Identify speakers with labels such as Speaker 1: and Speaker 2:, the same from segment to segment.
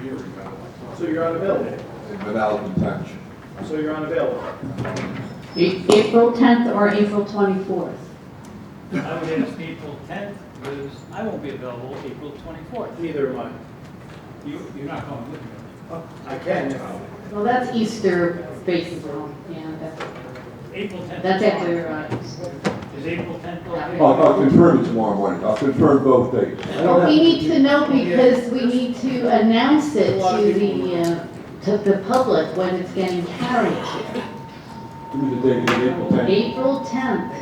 Speaker 1: hearing,
Speaker 2: So you're unavailable.
Speaker 1: without detention.
Speaker 2: So you're unavailable.
Speaker 3: April 10th or April 24th?
Speaker 4: I would ask April 10th, because I won't be available April 24th.
Speaker 2: Neither am I.
Speaker 4: You, you're not going with me.
Speaker 2: I can.
Speaker 3: Well, that's Easter baseball, yeah, that's,
Speaker 4: April 10th.
Speaker 3: that's after, uh, Easter.
Speaker 4: Is April 10th okay?
Speaker 1: I'll, I'll confirm it tomorrow morning, I'll confirm both dates. I don't
Speaker 3: Well,
Speaker 1: have-
Speaker 3: we need to know because we need to announce it to the, uh, to the public when it's getting carried here.
Speaker 1: Give me the date of April 10th.
Speaker 3: April 10th.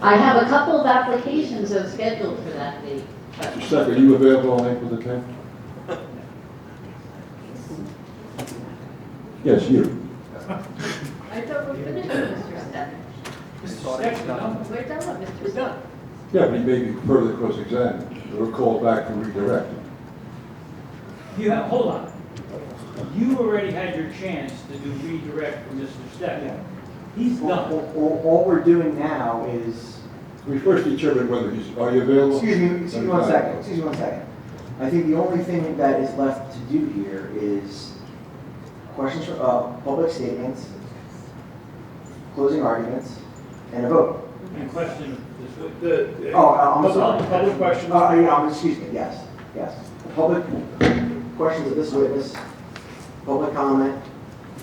Speaker 3: I have a couple of applications that are scheduled for that date. but-
Speaker 1: Mr. Stecker, are you available on April the 10th? Yes, you.
Speaker 5: I thought we're finished, Mr. Stephen.
Speaker 4: Mr. Stecker, no?
Speaker 5: We're done with Mr. Stephen.
Speaker 1: Yeah, but he may be further cross-examined, or called back to redirect.
Speaker 4: You have, hold on. You already had your chance to do redirect from Mr. Stecker. He's done.
Speaker 6: All, all- all we're doing now is,
Speaker 1: We first determine whether he's, are you available?
Speaker 6: excuse me, excuse me one second, excuse me one second. I think the only thing that is left to do here is questions for, uh, public statements, closing arguments, and a vote.
Speaker 4: And question this way.
Speaker 2: The,
Speaker 6: Oh, I- I'm
Speaker 2: Public-
Speaker 6: sorry.
Speaker 2: public questions.
Speaker 6: Uh, yeah, um, excuse me, yes, yes. Public questions of this witness, public comment,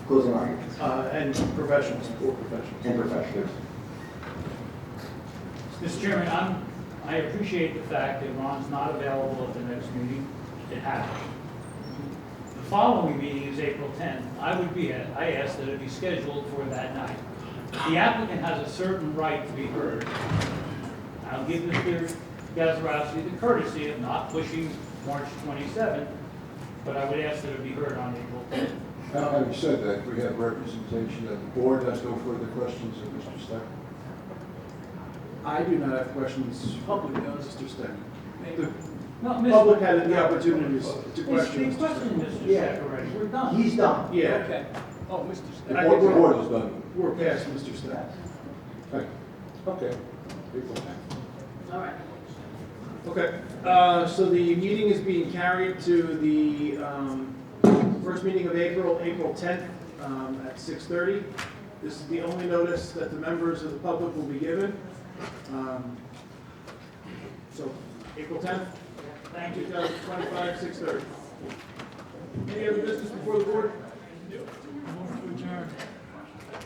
Speaker 6: closing arguments,
Speaker 2: uh, and professionals, poor professionals.
Speaker 6: and professionals.
Speaker 4: Mr. Chairman, I'm, I appreciate the fact that Ron's not available at the next meeting. It happened. The following meeting is April 10th. I would be, at- I ask that it be scheduled for that night. The applicant has a certain right to be heard. I'll give Mr. Gazarovski the courtesy of not pushing March 27th, but I would ask that it be heard on April 10th.
Speaker 1: Uh, Having said that, we have representation of the board, has no further questions of Mr. Stecker.
Speaker 2: I do not have questions publicly, no, Mr. Stein. The
Speaker 4: No,
Speaker 2: public
Speaker 4: Mr.
Speaker 2: had the opportunities to
Speaker 4: It's
Speaker 2: question.
Speaker 4: been
Speaker 2: Mr. Stein.
Speaker 4: questioned, Mr.
Speaker 6: Yeah.
Speaker 4: Sakuradi. We're done.
Speaker 6: He's done.
Speaker 2: Yeah,
Speaker 4: Okay. Oh, Mr.
Speaker 1: The
Speaker 2: I
Speaker 1: board,
Speaker 2: think-
Speaker 1: the board is done.
Speaker 2: we're past Mr. Stein.
Speaker 1: Okay. Okay. April 10th.
Speaker 3: All right.
Speaker 2: Okay, uh, so the meeting is being carried to the um, first meeting of April, April 10th um, at 6:30. This is the only notice that the members of the public will be given. Um, So, April 10th,
Speaker 4: Thank you.
Speaker 2: 2025, 6:30. Any other business before the board?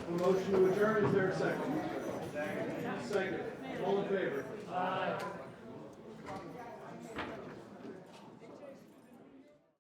Speaker 2: A Motion to adjourn, is there a second? Second, all in favor? Aye.